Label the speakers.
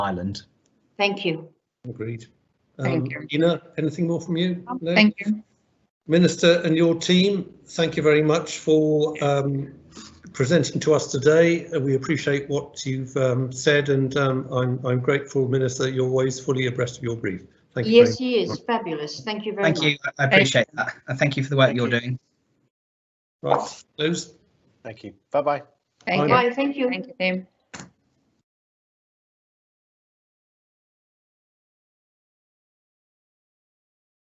Speaker 1: Ireland.
Speaker 2: Thank you.
Speaker 3: Agreed.
Speaker 2: Thank
Speaker 3: Um,
Speaker 2: you. Um,
Speaker 3: Ina, anything more from you? No?
Speaker 4: Thank you.
Speaker 3: Minister and your team, thank you very much for um, presenting to us today. Uh, We appreciate what you've um, said and um, I'm, I'm grateful, Minister, that you're always fully abreast of your brief. Thank you. very
Speaker 2: Yes, he is fabulous. Thank you very
Speaker 5: Thank
Speaker 2: much.
Speaker 5: you. I appreciate that. And thank you for the work you're doing.
Speaker 3: much. Right, close.
Speaker 6: Thank you. Bye bye.
Speaker 4: Thank you.
Speaker 2: Bye. Thank you.
Speaker 4: Thank you, team.